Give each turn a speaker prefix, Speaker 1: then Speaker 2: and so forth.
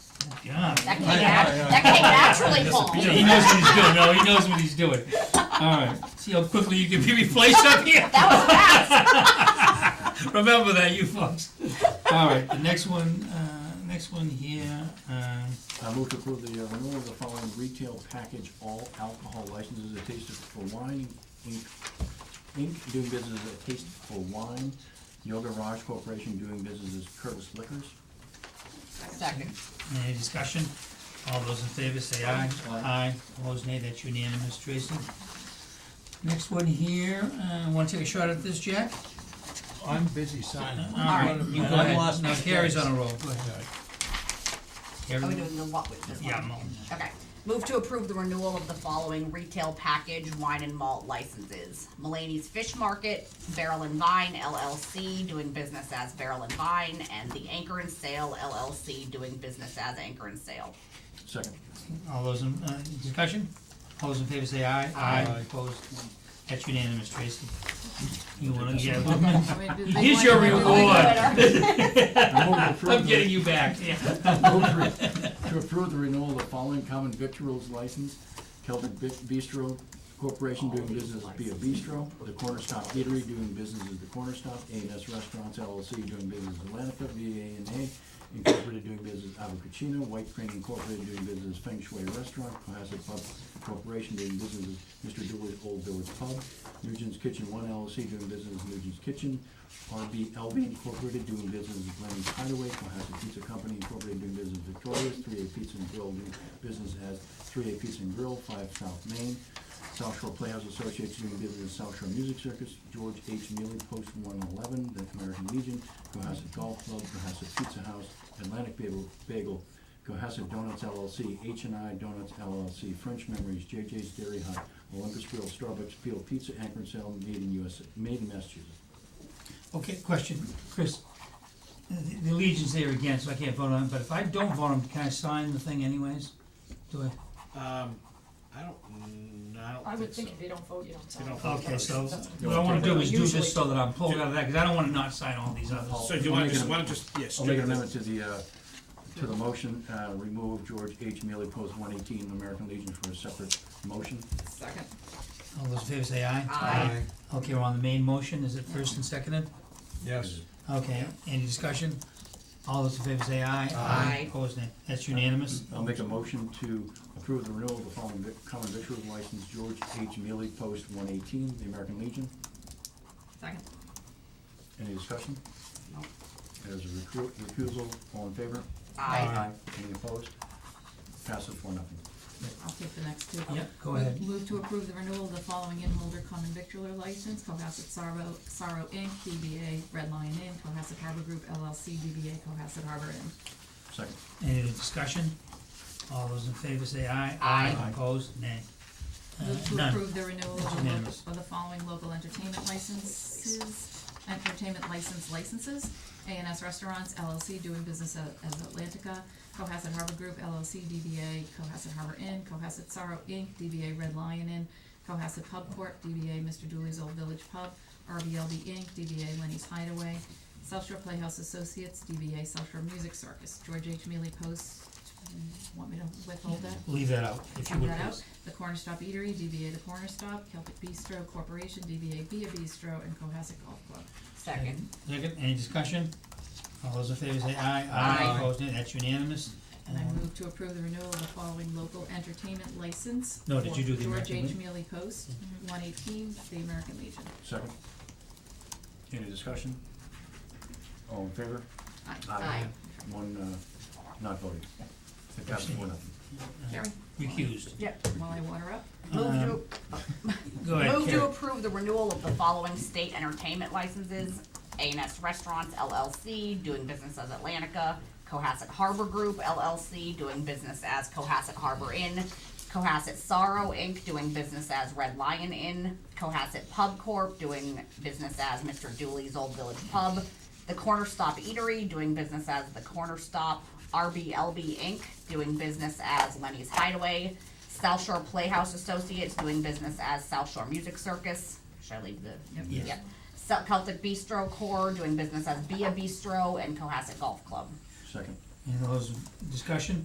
Speaker 1: God.
Speaker 2: That came,
Speaker 3: I know,
Speaker 2: nat-
Speaker 3: I know.
Speaker 2: that came naturally,
Speaker 1: He
Speaker 2: Paul.
Speaker 1: he knows what he's doing. No, he knows what he's doing. All right. See how quickly you can be replaced up here?
Speaker 2: That was fast.
Speaker 1: Remember that, you folks. All right, the next one, uh, next one here, uh,
Speaker 3: I move to approve the uh, renewal of the following retail package all alcohol licenses, a taste for wine, Inc., Inc., doing business as a taste for wine, Yoga Raj Corporation, doing business as Curtis Liquors.
Speaker 2: Second.
Speaker 1: any discussion? All those in favor say aye.
Speaker 3: Aye.
Speaker 1: Opposed, nay, that's unanimous, Tracy. Next one here, uh, wanna take a shot at this, Jack?
Speaker 4: I'm busy signing.
Speaker 1: All right, you go
Speaker 4: I
Speaker 1: ahead.
Speaker 4: lost
Speaker 1: No,
Speaker 4: my
Speaker 1: Carrie's
Speaker 4: place.
Speaker 1: on a roll, go ahead. Carrie?
Speaker 2: Are we doing the what with this one?
Speaker 1: Yeah, Mo.
Speaker 2: Okay. Move to approve the renewal of the following retail package wine and malt licenses. Mulaney's Fish Market, Barrel and Vine LLC, doing business as Barrel and Vine, and the Anchor and Sale LLC, doing business as Anchor and Sale.
Speaker 3: Second.
Speaker 1: All those in, uh, discussion? All those in favor say aye.
Speaker 2: Aye.
Speaker 1: Opposed, that's unanimous, Tracy. You wanna, yeah,
Speaker 5: Here's
Speaker 1: here's your
Speaker 2: Winner.
Speaker 1: reward.
Speaker 3: I move to approve
Speaker 1: I'm
Speaker 3: the-
Speaker 1: getting you back, yeah.
Speaker 3: Move To to approve the renewal of the following common victuals license, Celtic Bi- Bistro Corporation doing business as Bia Bistro, The Corner Stop Eatery doing business as The Corner Stop, A and S Restaurants LLC doing business as Atlantica, VANA Incorporated doing business as Abu White Crane Incorporated doing business as Feng Shui Restaurant, Cohasset Pub Corporation doing business as Mr. Dooley's Old Village Pub, Nugent's Kitchen One LLC doing business as Nugent's Kitchen, RBLB Incorporated doing business as Glenny's Hideaway, Cohasset Pizza Company Incorporated doing business as Victoria's, Three A Pizza and Grill doing business as Three A Pizza and Grill, Five South Main, South Shore Playhouse Associates doing business as South Shore Music Circus, George H. Neely Post One Eleven, The American Legion, Cohasset Golf Club, Cohasset Pizza House, Atlantic Bagel, Bagel, Cohasset Donuts LLC, H and I Donuts LLC, French Memories, JJ's Dairy Hut, Olympus Grill, Starbucks, Peel Pizza, Anchor and Sale, Made in USA, Made in Massachusetts.
Speaker 1: Okay, question, Chris. Uh, The the Legion's there again, so I can't vote on it, but if I don't vote on it, can I sign the thing anyways? Do I?
Speaker 4: Um, I don't, mm, I don't think so.
Speaker 5: I would think if they don't vote, you don't sign.
Speaker 4: They don't vote.
Speaker 1: Okay, so
Speaker 5: That's what-
Speaker 1: what I wanna do is do
Speaker 5: Usually.
Speaker 1: this so that I'm pulled out of that, cause I don't wanna not sign all these others.
Speaker 4: So do you
Speaker 3: I'll
Speaker 4: wanna
Speaker 3: make
Speaker 4: just,
Speaker 3: an-
Speaker 4: wanna just, yeah,
Speaker 3: I'll make
Speaker 4: strike
Speaker 3: an
Speaker 4: the,
Speaker 3: amendment to the, uh, to the motion, uh, remove George H. Mealy, post one eighteen, American Legion for a separate motion.
Speaker 5: Second.
Speaker 1: All those in favor say aye.
Speaker 2: Aye.
Speaker 1: Okay, we're on the main motion, is it first and seconded?
Speaker 4: yes.
Speaker 1: Okay, any discussion? All those in favor say aye.
Speaker 2: Aye.
Speaker 1: Opposed, nay. That's unanimous?
Speaker 3: I'll make a motion to approve the renewal of the following vic- common victuals license, George H. Mealy, post one eighteen, the American Legion.
Speaker 2: Second.
Speaker 3: Any discussion?
Speaker 2: No.
Speaker 3: As a recru- recusal, all in favor?
Speaker 2: Aye.
Speaker 3: Any opposed? Passes four nothing.
Speaker 6: I'll take the next two.
Speaker 1: Yep, go ahead.
Speaker 6: Move to approve the renewal of the following inn holder common victular license, Cohasset Sorrow, Sorrow Inc., DBA Red Lion Inn, Cohasset Harbor Group LLC, DBA Cohasset Harbor Inn.
Speaker 3: Second.
Speaker 1: Any discussion? All those in favor say aye.
Speaker 2: Aye.
Speaker 3: Aye.
Speaker 1: Opposed, nay. Uh,
Speaker 6: Move to
Speaker 1: none.
Speaker 6: approve the renewal of the, lo-
Speaker 1: Unanimous.
Speaker 6: of the following local entertainment licenses, entertainment license licenses, A and S Restaurants LLC doing business a- as Atlantica, Cohasset Harbor Group LLC, DBA Cohasset Harbor Inn, Cohasset Sorrow Inc., DBA Red Lion Inn, Cohasset Pub Corp., DBA Mr. Dooley's Old Village Pub, RBLD Inc., DBA Lenny's Hideaway, South Shore Playhouse Associates, DBA South Shore Music Circus, George H. Mealy Post, mm, want me to withhold that?
Speaker 1: Leave that out, if you
Speaker 6: Check
Speaker 1: would
Speaker 6: that out.
Speaker 1: please.
Speaker 6: The Corner Stop Eatery, DBA The Corner Stop, Celtic Bistro Corporation, DBA Bia Bistro, and Cohasset Golf Club.
Speaker 2: Second.
Speaker 1: Second, any discussion? All those in favor say aye.
Speaker 2: Aye.
Speaker 1: Opposed, nay. That's unanimous.
Speaker 6: And I
Speaker 1: Um,
Speaker 6: move to approve the renewal of the following local entertainment license.
Speaker 1: No, did
Speaker 6: for
Speaker 1: you do the American Mm-hmm.
Speaker 6: George H.
Speaker 1: Legion?
Speaker 6: Mealy Post, one eighteen, the American Legion.
Speaker 3: Second. Any discussion? All in favor?
Speaker 6: Aye.
Speaker 2: Aye.
Speaker 3: One, uh, not voting. It passes four nothing.
Speaker 6: Carrie,
Speaker 1: Recused.
Speaker 2: Yep.
Speaker 6: while I water up,
Speaker 2: Move to,
Speaker 1: Go ahead,
Speaker 2: Move to
Speaker 1: Carrie.
Speaker 2: approve the renewal of the following state entertainment licenses. A and S Restaurants LLC, doing business as Atlantica. Cohasset Harbor Group LLC, doing business as Cohasset Harbor Inn. Cohasset Sorrow Inc., doing business as Red Lion Inn. Cohasset Pub Corp., doing business as Mr. Dooley's Old Village Pub. The Corner Stop Eatery, doing business as The Corner Stop. RBLB Inc., doing business as Lenny's Hideaway. South Shore Playhouse Associates, doing business as South Shore Music Circus. Should I leave the?
Speaker 1: Yes.
Speaker 2: Yep. Cel- Celtic Bistro Corps, doing business as Bia Bistro and Cohasset Golf Club.
Speaker 3: Second.
Speaker 1: Any of those, discussion?